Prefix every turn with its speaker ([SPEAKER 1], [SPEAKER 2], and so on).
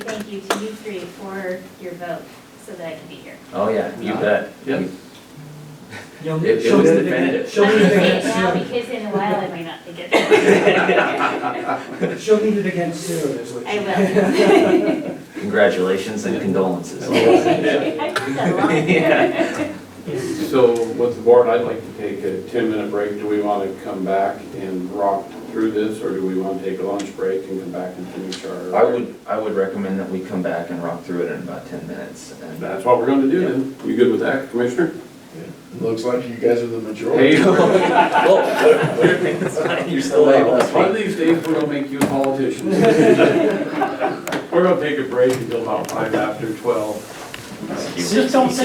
[SPEAKER 1] you to you three for your vote so that I can be here.
[SPEAKER 2] Oh, yeah, you bet.
[SPEAKER 3] Yeah.
[SPEAKER 2] You-
[SPEAKER 4] You'll-
[SPEAKER 2] It- it
[SPEAKER 4] she'll
[SPEAKER 2] was
[SPEAKER 4] do it again.
[SPEAKER 2] definitive.
[SPEAKER 4] She'll
[SPEAKER 1] I'm
[SPEAKER 4] need
[SPEAKER 1] gonna
[SPEAKER 4] it
[SPEAKER 1] say it now
[SPEAKER 4] again
[SPEAKER 1] because in a while I might not think it.
[SPEAKER 4] soon. She'll need it again soon, is what she.
[SPEAKER 1] I will.
[SPEAKER 2] Congratulations and condolences.
[SPEAKER 1] I've heard that a lot.
[SPEAKER 3] So with the board, I'd like to take a 10-minute break. Do we want to come back and rock through this, or do we want to take a lunch break and come back and finish our?
[SPEAKER 2] I would, I would recommend that we come back and rock through it in about 10 minutes. and- uh,
[SPEAKER 3] That's what we're going to do then. You good with that, Commissioner?
[SPEAKER 5] Looks like you guys are the majority.
[SPEAKER 3] Hey, one
[SPEAKER 2] Whoa. You're still able to
[SPEAKER 3] of
[SPEAKER 2] speak.
[SPEAKER 3] these days, we're going to make you a politician. We're going to take a break until about five after 12.
[SPEAKER 4] Just don't say